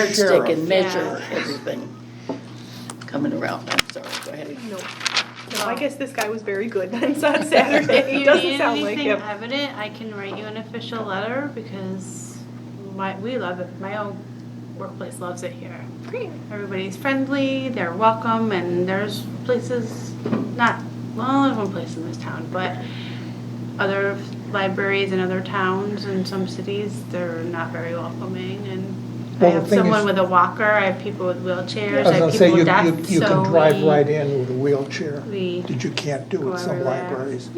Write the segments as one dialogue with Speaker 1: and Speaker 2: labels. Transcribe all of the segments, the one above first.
Speaker 1: yardstick and measure
Speaker 2: Yeah.
Speaker 1: everything coming around. I'm sorry, go ahead.
Speaker 3: No, no, I guess this guy was very good on Sa- Saturday.
Speaker 2: If Oh.
Speaker 3: It
Speaker 2: you
Speaker 3: doesn't
Speaker 2: need
Speaker 3: sound like
Speaker 2: anything
Speaker 3: him.
Speaker 2: evident, I can write you an official letter because my, we love it. My own workplace loves it here.
Speaker 3: Great.
Speaker 2: Everybody's friendly, they're welcome, and there's places, not, well, there's one place in this town, but other libraries in other towns and some cities, they're not very welcoming and
Speaker 4: Well,
Speaker 2: I
Speaker 4: the
Speaker 2: have
Speaker 4: thing
Speaker 2: someone
Speaker 4: is-
Speaker 2: with a walker, I have people with wheelchairs,
Speaker 4: I was
Speaker 2: I
Speaker 4: gonna
Speaker 2: have
Speaker 4: say,
Speaker 2: people
Speaker 4: you,
Speaker 2: with
Speaker 4: you,
Speaker 2: deaf,
Speaker 4: you can
Speaker 2: so
Speaker 4: drive right
Speaker 2: we,
Speaker 4: in with a wheelchair,
Speaker 2: we
Speaker 4: that you can't
Speaker 2: go
Speaker 4: do at some
Speaker 2: everywhere.
Speaker 4: libraries.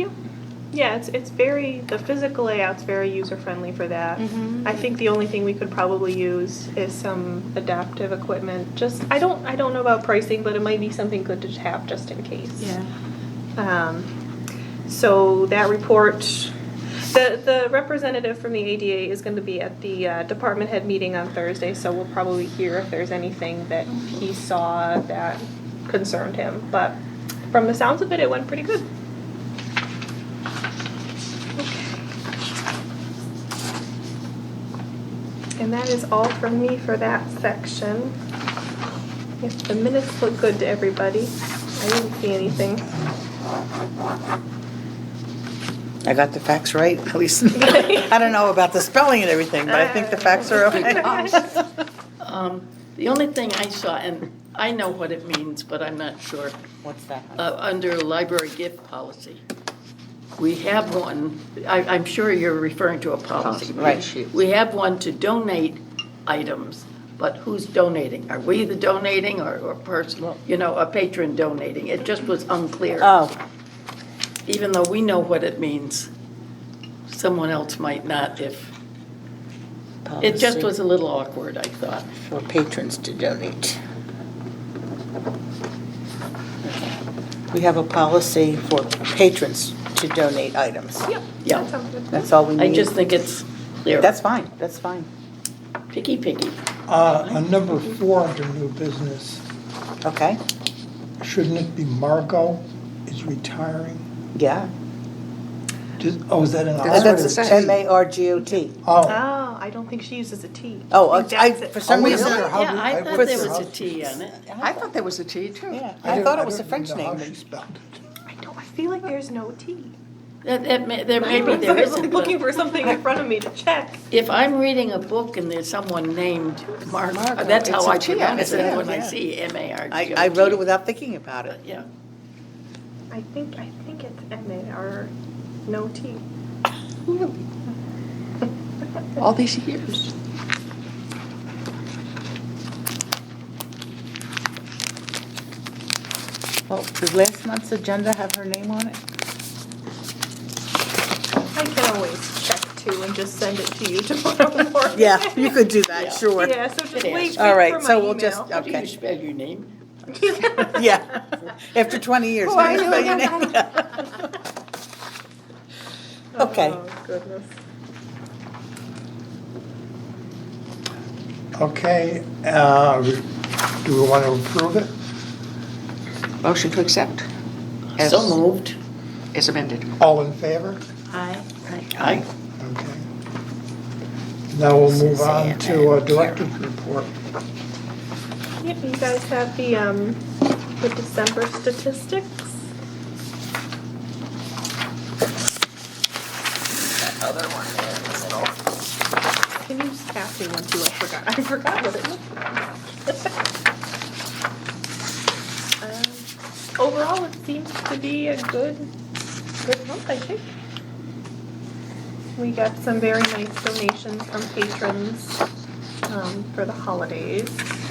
Speaker 3: Yeah, it's it's very the physical layout's very user friendly for that.
Speaker 2: Mhm.
Speaker 3: I think the only thing we could probably use is some adaptive equipment. Just I don't I don't know about pricing, but it might be something good to have just in case.
Speaker 2: Yeah.
Speaker 3: Um, so that report, the, the representative from the ADA is gonna be at the uh, department head meeting on Thursday, so we'll probably hear if there's anything that he saw that concerned him, but from the sounds of it, it went pretty good. And that is all from me for that section. If the minutes look good to everybody, I didn't see anything.
Speaker 5: I got the facts right, at least. I don't know about the spelling and everything, but I think the facts are okay.
Speaker 1: Um, The only thing I saw, and I know what it means, but I'm not sure,
Speaker 5: What's that?
Speaker 1: uh, under library gift policy. We have one, I, I'm sure you're referring to a policy.
Speaker 5: Right.
Speaker 1: We have one to donate items, but who's donating? Are we the donating or, or personal, you know, a patron donating? It just was unclear.
Speaker 5: Oh,
Speaker 1: even though we know what it means, someone else might not if, it just
Speaker 5: Policy.
Speaker 1: was a little awkward, I thought.
Speaker 5: for patrons to donate. We have a policy for patrons to donate items.
Speaker 3: Yep.
Speaker 1: Yeah.
Speaker 3: That sounds good.
Speaker 5: That's all we
Speaker 1: I
Speaker 5: need.
Speaker 1: just think it's clear.
Speaker 5: That's fine, that's fine.
Speaker 1: Picky, picky.
Speaker 4: Uh, on number four under new business,
Speaker 5: Okay,
Speaker 4: shouldn't it be Margot is retiring?
Speaker 5: yeah.
Speaker 4: Just, oh, is that an R?
Speaker 5: That's M-A-R-G-O-T.
Speaker 4: Oh,
Speaker 3: Oh, I don't think she uses a T.
Speaker 5: Oh,
Speaker 3: I think
Speaker 5: I-
Speaker 3: that's it.
Speaker 5: for some
Speaker 4: Oh, is
Speaker 5: reason,
Speaker 4: there? How
Speaker 1: Yeah,
Speaker 4: do-
Speaker 1: I
Speaker 4: I
Speaker 1: thought
Speaker 4: would
Speaker 1: there
Speaker 4: say-
Speaker 1: was a T on it.
Speaker 6: I thought there was a T too.
Speaker 4: I
Speaker 5: yeah, I
Speaker 4: didn't-
Speaker 5: thought
Speaker 4: I
Speaker 5: it was a
Speaker 4: don't
Speaker 5: French
Speaker 4: know how
Speaker 5: name.
Speaker 4: she spelled it.
Speaker 3: I don't, I feel like there's no T.
Speaker 1: That, that may, there may be,
Speaker 3: I'm
Speaker 1: there
Speaker 3: sorry,
Speaker 1: isn't,
Speaker 3: I'm looking
Speaker 1: but
Speaker 3: for something in front of me to check.
Speaker 1: if I'm reading a book and there's someone named Mark,
Speaker 6: Margot,
Speaker 1: that's how
Speaker 6: it's a
Speaker 1: I
Speaker 6: T,
Speaker 1: pronounce
Speaker 5: yeah,
Speaker 1: it when I
Speaker 5: yeah.
Speaker 1: see M-A-R-G-O-T.
Speaker 5: I, I wrote it without thinking about it.
Speaker 1: Yeah,
Speaker 3: I think, I think it's M A R, no T.
Speaker 6: All these years.
Speaker 5: Well, did last month's agenda have her name on it?
Speaker 3: I can always check too and just send it to you tomorrow morning.
Speaker 5: Yeah, you could do
Speaker 1: Yeah.
Speaker 5: that, sure.
Speaker 3: Yeah, so just
Speaker 1: Good
Speaker 3: wait, wait
Speaker 1: answer.
Speaker 3: for
Speaker 5: All right,
Speaker 3: my
Speaker 5: so we'll just-
Speaker 3: email.
Speaker 1: how do you
Speaker 5: Okay.
Speaker 1: spell your name?
Speaker 5: Yeah, after 20
Speaker 3: Oh,
Speaker 5: years.
Speaker 6: Why
Speaker 5: you
Speaker 6: you
Speaker 5: spell your name? Okay.
Speaker 3: Oh, goodness.
Speaker 4: Okay, uh, do we want to approve it?
Speaker 6: Motion to accept. As-
Speaker 1: So moved.
Speaker 6: As amended.
Speaker 4: All in favor?
Speaker 2: I,
Speaker 1: I,
Speaker 4: Okay. Now we'll move on
Speaker 5: Suzanne
Speaker 4: to uh,
Speaker 5: and
Speaker 4: director's report.
Speaker 3: Yep, you guys have the, um, the December statistics? Can you just pass me one too? I forgot, I forgot what it looked like. Um, Overall, it seems to be a good, good month, I think. We got some very nice donations from patrons, um, for the holidays.